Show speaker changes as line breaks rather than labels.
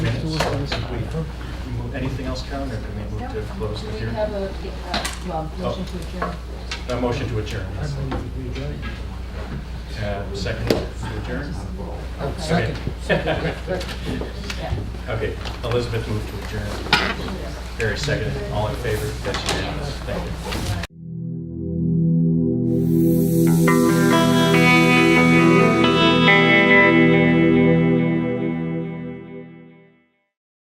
Anything else, Karen, or can we move to close
Do
the
we
hearing?
have a, uh, well, motion to adjourn?
A motion to adjourn. yes. Uh, Second to adjourn? Oh,
Second.
Okay.
Yeah.
Okay, Elizabeth moved to adjourn. Barry seconded, all in favor, that's unanimous, thank you.